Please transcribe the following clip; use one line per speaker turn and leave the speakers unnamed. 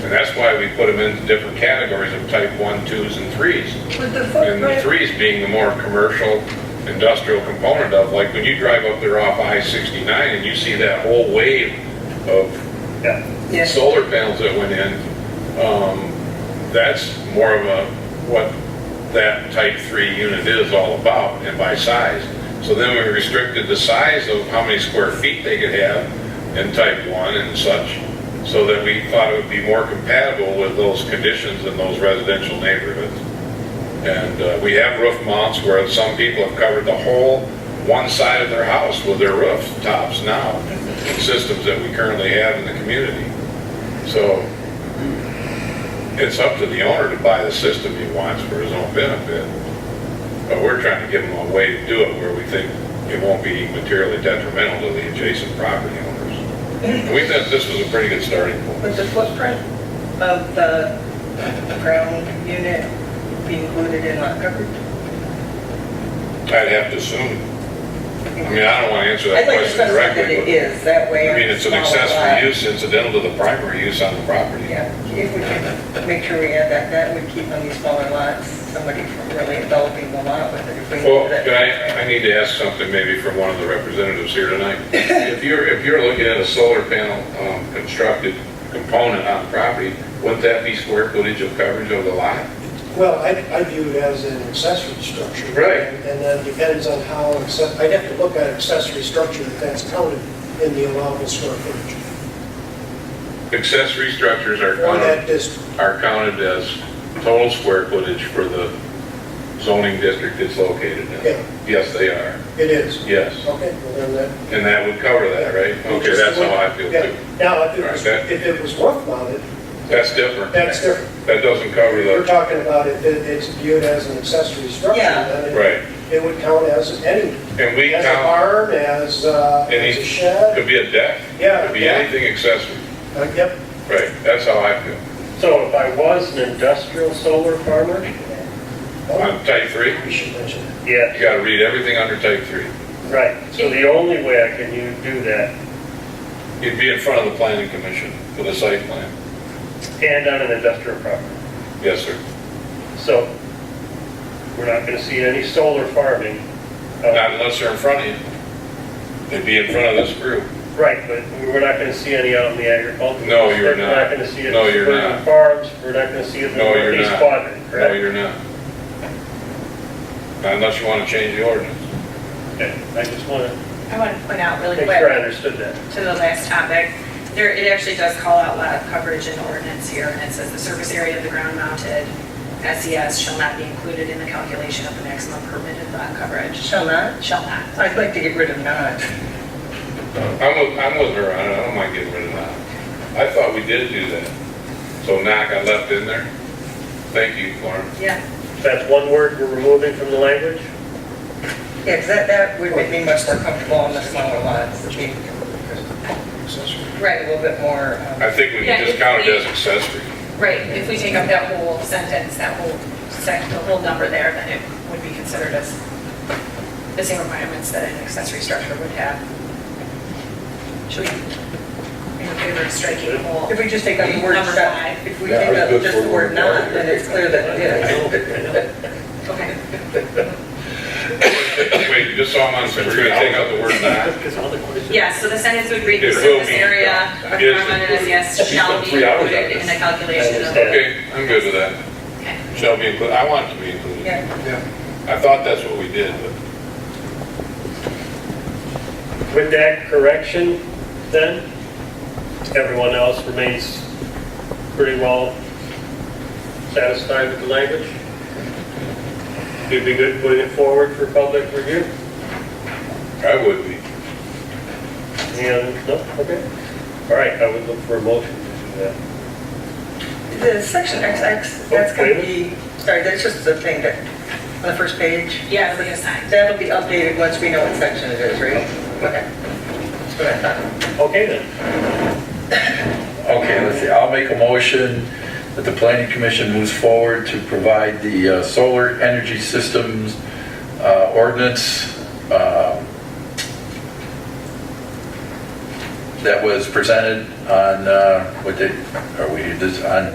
And that's why we put them into different categories of type one, twos, and threes.
With the
And the
footprint,
threes being the more commercial, industrial component of, like, when you drive up there off I-69 and you see that whole wave of
Yeah,
yes,
solar panels that went in, um, that's more of a, what that type three unit is all about and by size. So then we restricted the size of how many square feet they could have in type one and such, so that we thought it would be more compatible with those conditions in those residential neighborhoods. And uh, we have roof mounts where some people have covered the whole one side of their house with their roof tops now, systems that we currently have in the community. So it's up to the owner to buy the system he wants for his own benefit. But we're trying to give him a way to do it where we think it won't be materially detrimental to the adjacent property owners. And we thought this was a pretty good starting point.
with the footprint of the ground unit be included in lot coverage?
I'd have to assume, I mean, I don't want to answer that
I'd like
question
to specify
directly.
that it
but-
is, that way.
I mean, it's an
on a smaller lot.
accessory use incidental to the primary use on the property.
Yeah, if we can make sure we add that, that would keep on these smaller lots, somebody from really developing the lot with it. if we
Well,
do that.
can I, I need to ask something maybe from one of the representatives here tonight. If you're, if you're looking at a solar panel um, constructed component on property, wouldn't that be square footage of coverage of the lot?
Well, I, I view it as an accessory structure.
Right.
And then depends on how, acce- I'd have to look at accessory structure if that's counted in the allowable square footage
Accessory structures are
for that
counted,
district.
are counted as total square footage for the zoning district it's located
Yeah.
in. Yes, they are,
It is.
yes.
Okay, well then that.
And that would cover that, right? Okay, that's how I feel
Yeah.
too.
Now, if it was,
All right, that-
if it was roof mounted,
That's different.
that's different.
That doesn't cover
We're
the,
talking about it, it- it's viewed as an accessory structure.
Yeah.
then it-
right.
It would count as any,
And we
as a
count.
barn, as, uh, as a
Any,
shed.
could be a deck,
Yeah,
could be
yeah.
anything accessory.
Uh, Yep,
Right, that's how I feel.
so if I was an industrial solar farmer,
Oh,
On type three,
we should mention that.
yeah,
you gotta read everything under type three.
right. So the only way I can u- do that,
You'd be in front of the planning commission for the site plan.
and on an industrial property.
Yes, sir.
So we're not gonna see any solar farming.
Oh.
uh,
Not unless they're in front of you. They'd be in front of this group.
Right, but we're not gonna see any out in the agricultural.
No, you're not.
We're not gonna see it
No,
in
you're
suburban
not.
farms, we're not gonna see it in the
No, you're
northeast
not.
quadrant,
No,
correct?
you're not. Not Unless you wanna change the ordinance.
Okay, I just wanna
I want to point out really
make sure I
quick
understood that.
to the last topic, there, it actually does call out lot coverage in ordinance here, and it says the surface area of the ground mounted SES shall not be included in the calculation of the maximum permitted lot coverage.
Shall not?
Shall not.
I'd like to get rid of not.
I'm with, I'm with her on it, I don't mind getting rid of that. I thought we did do that. So now I got left in there. Thank you, Lauren.
Yeah.
That's one word we're removing from the language?
Yeah, 'cause that, that would make me much more comfortable on the smaller lots, it'd be
Accessory.
a little bit more, um,
I think we can just count it as accessory.
Right, if we take up that whole sentence, that whole sec, the whole number there, then it would be considered as the same requirements that an accessory structure would have. Should we, in favor of striking the whole?
if we just take out the word
Number
shall,
five.
if we
Yeah, I
take
was
out
good
just
for
the word
word
not,
five.
then it's clear that it is.
Okay.
Wait, just so I'm on, we're gonna take out the word not.
Because all the questions-
Yeah, so the sentence would read, the
It will
surface
be,
area
yeah.
of
Yes,
ground mounted
it's-
as yes
it's
shall
been
be
three hours on
included in the
this.
calculation of.
Understand.
Okay, I'm good with that.
Okay.
Shall be included, I want it to be included.
Yeah,
I thought that's what we did, but
With that correction, then, everyone else remains pretty well satisfied with the language? You'd be good putting it forward for public review?
I would be.
And, no, okay. All right, I would look for a motion to do that.
the section XX, that's gonna be, sorry, that's just the thing that, on the first page.
Yeah, it'll be assigned.
That'll be updated once we know what section it is, right? Okay. That's what I thought.
Okay then,
Okay, let's see, I'll make a motion that the planning commission moves forward to provide the uh, solar energy systems uh, ordinance um, that was presented on, uh, what day, are we, this, on